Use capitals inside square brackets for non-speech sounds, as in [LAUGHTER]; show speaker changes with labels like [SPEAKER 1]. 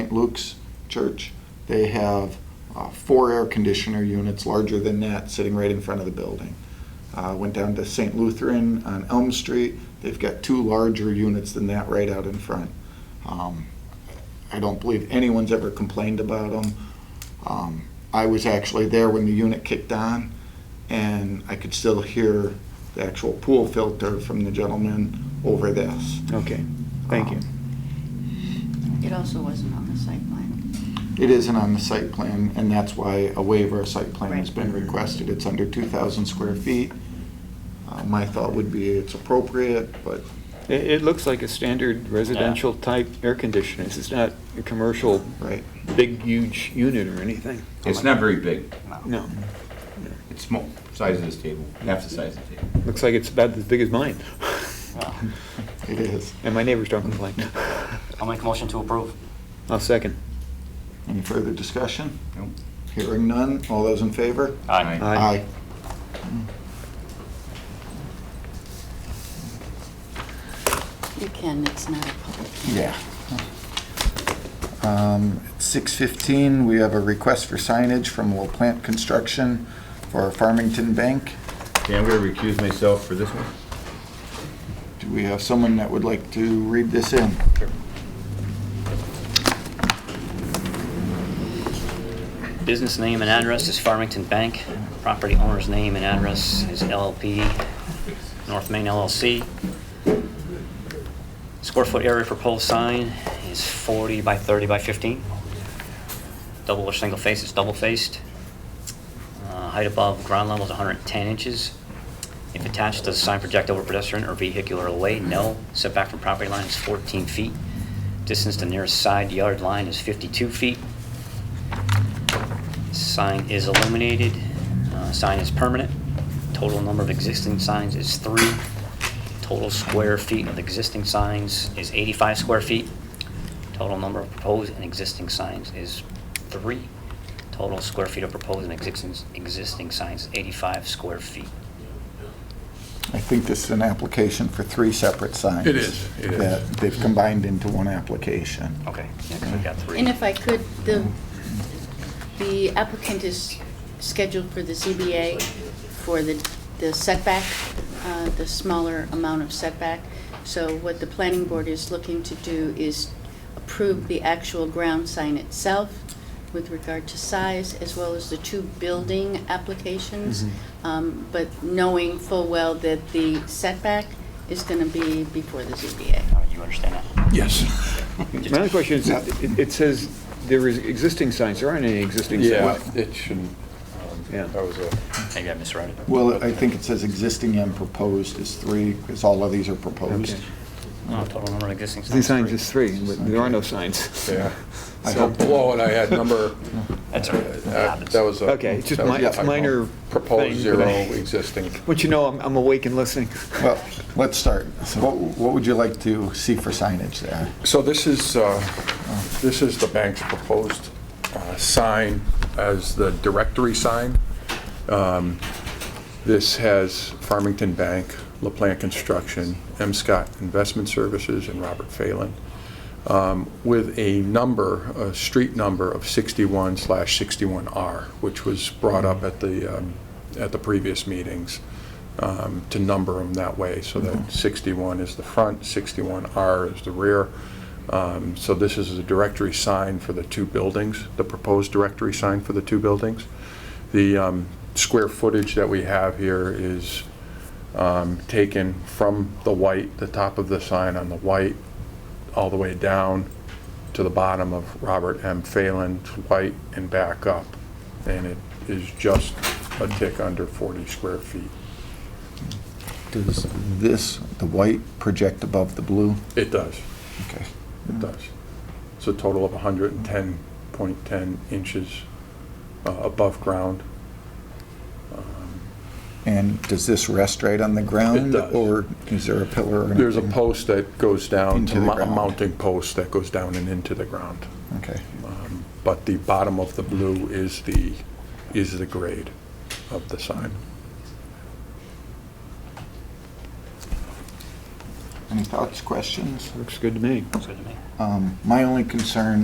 [SPEAKER 1] St. Luke's Church. They have uh, four air conditioner units larger than that sitting right in front of the building. Uh, Went down to St. Lutheran on Elm Street. They've got two larger units than that right out in front. Um, I don't believe anyone's ever complained about them. Um, I was actually there when the unit kicked on, and I could still hear the actual pool filter from the gentleman over this. Um,
[SPEAKER 2] Okay, thank you.
[SPEAKER 3] It also wasn't on the site plan.
[SPEAKER 1] It isn't on the site plan, and that's why a waiver of site plan has been
[SPEAKER 2] Right.
[SPEAKER 1] requested. It's under 2,000 square feet. Uh, My thought would be it's appropriate, but
[SPEAKER 2] It, it looks like a standard residential type air conditioner. It's not a commercial,
[SPEAKER 1] Right.
[SPEAKER 2] big, huge unit or anything.
[SPEAKER 4] It's not very big.
[SPEAKER 2] No,
[SPEAKER 4] It's small, size of this table, half the size of the table.
[SPEAKER 2] looks like it's about as big as mine. [LAUGHS]
[SPEAKER 1] it is.
[SPEAKER 2] And my neighbors don't complain.
[SPEAKER 5] I'll make a motion to approve.
[SPEAKER 2] I'll second.
[SPEAKER 1] Any further discussion?
[SPEAKER 4] No?
[SPEAKER 1] Hearing none. All those in favor?
[SPEAKER 5] Aye.
[SPEAKER 2] Aye.
[SPEAKER 3] You can, it's not a public hearing.
[SPEAKER 1] Yeah. Um, at 6:15, we have a request for signage from Will Plant Construction for Farmington Bank.
[SPEAKER 4] Okay, I'm gonna recuse myself for this one.
[SPEAKER 1] Do we have someone that would like to read this in?
[SPEAKER 5] Business name and address is Farmington Bank. Property owner's name and address is LLP North Main LLC. Square foot area proposed sign is 40 by 30 by 15. Double or single face, it's double faced. Uh, Height above ground level is 110 inches. If attached, does the sign project over pedestrian or vehicular away? No. Setback from property line is 14 feet. Distance to nearest side yard line is 52 feet. Sign is illuminated, uh, sign is permanent. Total number of existing signs is three. Total square feet of existing signs is 85 square feet. Total number of proposed and existing signs is three. Total square feet of proposed and existing, existing signs, 85 square feet.
[SPEAKER 1] I think this is an application for three separate signs.
[SPEAKER 6] It is, it is.
[SPEAKER 1] That they've combined into one application.
[SPEAKER 5] Okay, yeah, 'cause we've got three.
[SPEAKER 3] And if I could, the, the applicant is scheduled for the ZBA for the, the setback, uh, the smaller amount of setback. So what the planning board is looking to do is approve the actual ground sign itself with regard to size, as well as the two building applications. Um, but knowing full well that the setback is gonna be before the ZBA.
[SPEAKER 5] Uh, You understand that?
[SPEAKER 6] Yes.
[SPEAKER 2] My other question is, it, it says there is existing signs. There aren't any existing
[SPEAKER 6] Yeah,
[SPEAKER 2] signs.
[SPEAKER 6] it shouldn't.
[SPEAKER 2] Yeah.
[SPEAKER 6] um, That was a,
[SPEAKER 5] Maybe I misread it.
[SPEAKER 1] Well, I think it says existing and proposed is three, because all of these are proposed.
[SPEAKER 2] Okay.
[SPEAKER 5] No, Total number of existing signs.
[SPEAKER 2] Existing signs is three, but there are no signs.
[SPEAKER 6] yeah.
[SPEAKER 1] I
[SPEAKER 6] So
[SPEAKER 1] hope-
[SPEAKER 6] below it, I had number,
[SPEAKER 5] That's all right. It
[SPEAKER 6] uh,
[SPEAKER 5] happens.
[SPEAKER 6] that was a.
[SPEAKER 2] Okay, it's just
[SPEAKER 6] that was
[SPEAKER 2] mi-
[SPEAKER 6] a
[SPEAKER 2] it's minor
[SPEAKER 6] typo. Proposed
[SPEAKER 2] thing, but
[SPEAKER 6] zero,
[SPEAKER 2] I-
[SPEAKER 6] existing.
[SPEAKER 2] But you know, I'm, I'm awake and listening.
[SPEAKER 1] Well, let's start. So what, what would you like to see for signage there?
[SPEAKER 6] So this is, uh, this is the bank's proposed uh, sign as the directory sign. Um, This has Farmington Bank, LaPlante Construction, M. Scott Investment Services, and Robert Phelan, um, with a number, a street number of 61 slash 61R, which was brought up at the, um, at the previous meetings, um, to number them that way, so that 61 is the front, 61R is the rear. Um, So this is the directory sign for the two buildings, the proposed directory sign for the two buildings. The um, square footage that we have here is um, taken from the white, the top of the sign on the white, all the way down to the bottom of Robert M. Phelan's white and back up. And it is just a tick under 40 square feet.
[SPEAKER 1] Does this, the white, project above the blue?
[SPEAKER 6] It does,
[SPEAKER 1] Okay.
[SPEAKER 6] it does. It's a total of 110.10 inches uh, above ground.
[SPEAKER 1] And does this rest right on the ground?
[SPEAKER 6] does.
[SPEAKER 1] Or is there a pillar or anything?
[SPEAKER 6] There's a post that goes down,
[SPEAKER 1] Into
[SPEAKER 6] a
[SPEAKER 1] the
[SPEAKER 6] mou- a
[SPEAKER 1] ground.
[SPEAKER 6] mounting post that goes down and into the ground.
[SPEAKER 1] Okay.
[SPEAKER 6] Um, But the bottom of the blue is the, is the grade of the sign.
[SPEAKER 1] Any thoughts, questions?
[SPEAKER 2] Looks good to me.
[SPEAKER 5] Sounds good to me.
[SPEAKER 1] Um, My only concern